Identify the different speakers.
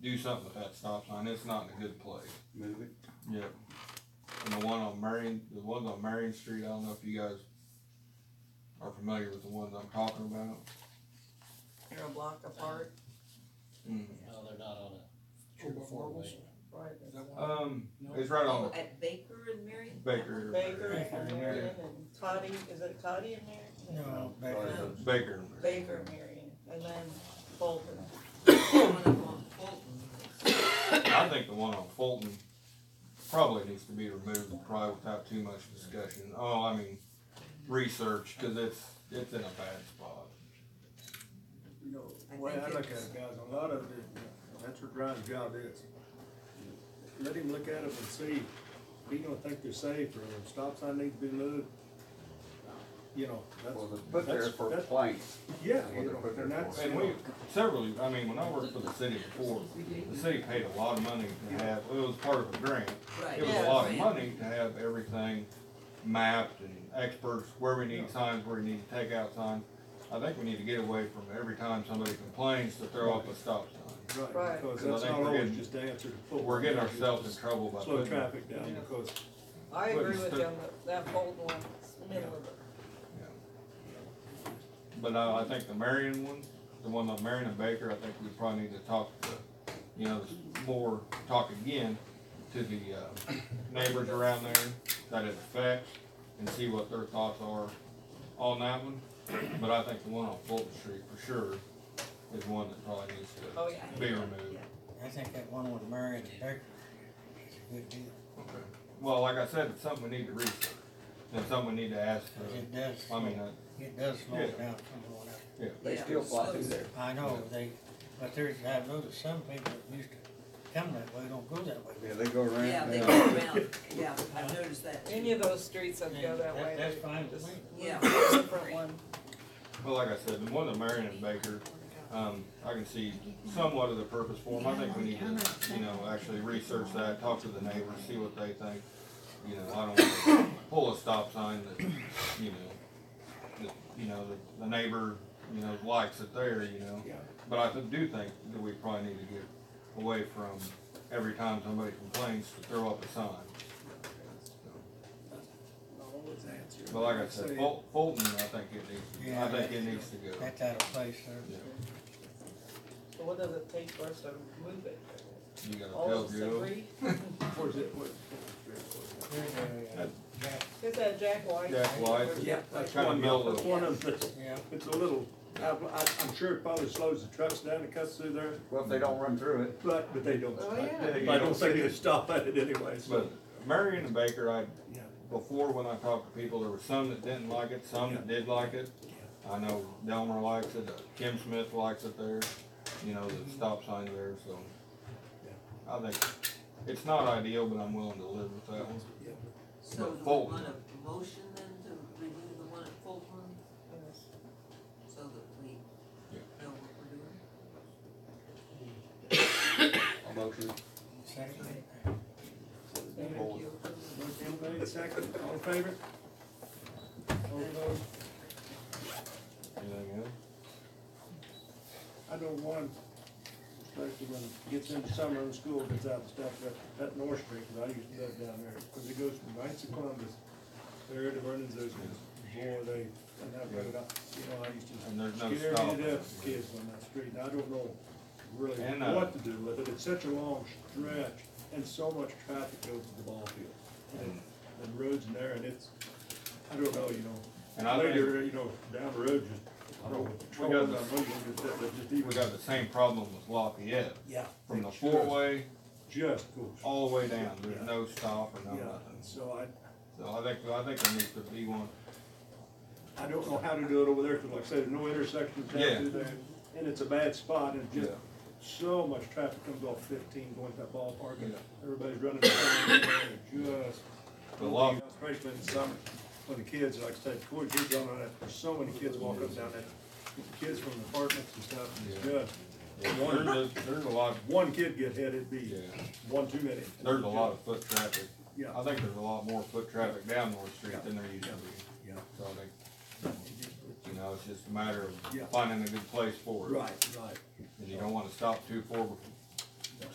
Speaker 1: do something with that stop sign, it's not in a good place.
Speaker 2: Move it.
Speaker 1: Yep. And the one on Marion, the ones on Marion Street, I don't know if you guys are familiar with the ones I'm talking about.
Speaker 3: They're a block apart,
Speaker 1: Mm-hmm.
Speaker 4: No, they're not on a true
Speaker 5: Oh,
Speaker 4: four way.
Speaker 5: Marbles?
Speaker 3: right?
Speaker 5: Is that one?
Speaker 1: Um,
Speaker 5: No.
Speaker 1: it's right on
Speaker 3: At Baker and Marion?
Speaker 1: Baker.
Speaker 3: Baker and
Speaker 5: Yeah.
Speaker 3: Marion and Toddy, is it Toddy and Marion?
Speaker 5: No, back
Speaker 2: Sorry.
Speaker 5: there.
Speaker 1: Baker.
Speaker 3: Baker and Marion, and then Fulton.
Speaker 1: I think the one on Fulton probably needs to be removed, probably without too much discussion. Oh, I mean, research, cause it's, it's in a bad spot.
Speaker 6: You know,
Speaker 3: I
Speaker 6: the way
Speaker 3: think
Speaker 6: I look at
Speaker 3: it's-
Speaker 6: it, guys, a lot of it, that's what Ryan's job is. Let him look at them and see, if he don't think they're safe, or a stop sign needs to be moved, you know,
Speaker 2: Well,
Speaker 6: that's.
Speaker 2: they're put there
Speaker 6: that's-
Speaker 2: for
Speaker 6: that's-
Speaker 2: planks.
Speaker 6: Yeah,
Speaker 2: what
Speaker 6: you
Speaker 2: they're
Speaker 6: know,
Speaker 2: put there
Speaker 6: and that's,
Speaker 2: for.
Speaker 1: And we, several, I mean, when I worked for the city before, the city paid a lot of money to have, it was part of a grant. It was a lot of money to have everything mapped and experts, where we need signs, where we need to take out signs. I think we need to get away from every time somebody complains to throw up a stop sign.
Speaker 6: right,
Speaker 3: Right.
Speaker 6: because
Speaker 1: And I
Speaker 6: that's
Speaker 1: think
Speaker 6: not
Speaker 1: we're
Speaker 6: always
Speaker 1: getting-
Speaker 6: just the answer to.
Speaker 1: But
Speaker 6: pull.
Speaker 1: we're getting ourselves in trouble by
Speaker 6: Slow
Speaker 1: putting.
Speaker 6: traffic down,
Speaker 1: Yeah.
Speaker 6: because
Speaker 3: I
Speaker 1: But
Speaker 3: agree with
Speaker 1: instead-
Speaker 3: them, that- that Fulton one, it's middle of it.
Speaker 1: Yeah. But uh, I, I think the Marion one, the one on Marion and Baker, I think we probably need to talk, to, you know, more, talk again to the, uh, neighbors around there that it affects and see what their thoughts are on that one. But I think the one on Fulton Street for sure is one that probably needs
Speaker 3: Oh,
Speaker 1: to
Speaker 3: yeah.
Speaker 1: be removed.
Speaker 5: I think that one with Marion and Becker is a good deal.
Speaker 1: Okay. Well, like I said, it's something we need to research and something we need to ask,
Speaker 5: Cause it
Speaker 1: for.
Speaker 5: does,
Speaker 1: I mean, uh,
Speaker 5: it does slow it
Speaker 1: Yeah.
Speaker 5: down from going up.
Speaker 2: They
Speaker 3: Yeah.
Speaker 2: still fly through there.
Speaker 5: I know, they, but there's, I noticed some people that used to come that way, don't go that way.
Speaker 2: Yeah, they go around.
Speaker 7: Yeah, they
Speaker 2: now.
Speaker 7: go around, yeah, I've noticed that.
Speaker 3: Any of those streets that go that way,
Speaker 5: That's
Speaker 3: they
Speaker 5: fine with
Speaker 3: just
Speaker 5: me.
Speaker 7: Yeah.
Speaker 3: move to a different one.
Speaker 1: well, like I said, the one on Marion and Baker, Um, I can see somewhat of the purpose for them. I think we need to, you know, actually research that, talk to the neighbors, see what they think. You know, I don't wanna pull a stop sign that, you know, that, you know, that the neighbor, you know, likes it there, you know.
Speaker 6: Yeah.
Speaker 1: But I do think that we probably need to get away from every time somebody complains to throw up a sign.
Speaker 6: always answer.
Speaker 1: But like I said, oh. Ful- Fulton, I think it needs,
Speaker 5: Yeah,
Speaker 1: I think it
Speaker 5: that's-
Speaker 1: needs to go.
Speaker 5: That's out of place
Speaker 1: Yeah.
Speaker 5: there.
Speaker 3: So what does it take for us to move it?
Speaker 1: You gotta
Speaker 3: All
Speaker 1: tell
Speaker 3: of us
Speaker 1: Joe.
Speaker 3: agree?
Speaker 6: Where's it, what?
Speaker 5: There's a, uh, Jack-
Speaker 3: Is that Jack White?
Speaker 1: Jack White.
Speaker 6: Yeah, that's
Speaker 1: Kinda
Speaker 6: one,
Speaker 1: middle of-
Speaker 6: that's one of the.
Speaker 5: Yeah,
Speaker 6: It's a little, I, I, I'm sure it probably slows the trucks down and cuts through there,
Speaker 2: Well, if they don't run through it,
Speaker 6: but, but they don't.
Speaker 3: Oh,
Speaker 6: I-
Speaker 3: yeah.
Speaker 6: I don't think they stop at it anyway, so.
Speaker 1: But Marion and Baker, I,
Speaker 6: Yeah.
Speaker 1: before when I talked to people, there were some that didn't like it, some that did like it. I know Delmer likes it, uh, Kim Smith likes it there, you know, the stop sign there, so. I think, it's not ideal, but I'm willing to live with that one.
Speaker 7: So do
Speaker 1: But
Speaker 7: we
Speaker 1: Fulton.
Speaker 7: want a motion then to remove the one at Fulton,
Speaker 3: Yes.
Speaker 7: so that we know what we're doing?
Speaker 2: a motion.
Speaker 5: second.
Speaker 2: Hold.
Speaker 6: Motion made, second, all in favor? All opposed?
Speaker 1: Anything else?
Speaker 6: I know one, especially when it gets into summer and school gets out and stuff, that, that North Street, 'cause I used to live down there, cause it goes from Knights of Columbus, there to Vernon's, those, boy, they, and that road, I- you know, I used to.
Speaker 1: And there's no
Speaker 6: Scared
Speaker 1: stop.
Speaker 6: me to death, kids on that street, and I don't know really
Speaker 1: And, uh,
Speaker 6: what to do with it, it's such a long stretch, and so much traffic goes to the ball field. And,
Speaker 1: Mm.
Speaker 6: and roads in there, and it's, I don't know, you
Speaker 1: And I
Speaker 6: know,
Speaker 1: think-
Speaker 6: later, you know, down the road, just, I don't know what the
Speaker 1: We
Speaker 6: trouble
Speaker 1: got
Speaker 6: is,
Speaker 1: the-
Speaker 6: I don't know, you just, that- that just even.
Speaker 1: We got the same problem with Lafayette,
Speaker 6: Yeah.
Speaker 1: from the four-way
Speaker 6: Just goes.
Speaker 1: all the way down, there's no stop or no
Speaker 6: Yeah,
Speaker 1: nothing.
Speaker 6: so I,
Speaker 1: So I think, I think there needs to be one,
Speaker 6: I don't know how to do it over there, cause like I said, no intersections
Speaker 1: Yeah.
Speaker 6: down through there, and it's a bad spot, and just
Speaker 1: Yeah.
Speaker 6: so much traffic comes off fifteen going to that ballpark, and
Speaker 1: Yeah.
Speaker 6: everybody's running around, and it just.
Speaker 1: The law-
Speaker 6: Especially in the summer, when the kids, like I said, poor kids on that, there's so many kids walking up down that, kids from apartments and stuff, and it's just,
Speaker 1: there's,
Speaker 6: one,
Speaker 1: a- there's a lot,
Speaker 6: one kid get hit, it'd be
Speaker 1: Yeah.
Speaker 6: one too many.
Speaker 1: there's a lot of foot traffic.
Speaker 6: Yeah.
Speaker 1: I think there's a lot more foot traffic down North Street than there used to be.
Speaker 6: Yeah.
Speaker 1: So I think, you know, it's just a matter
Speaker 6: Yeah.
Speaker 1: of finding a good place for it.
Speaker 6: Right, right.
Speaker 1: And you don't wanna stop too far,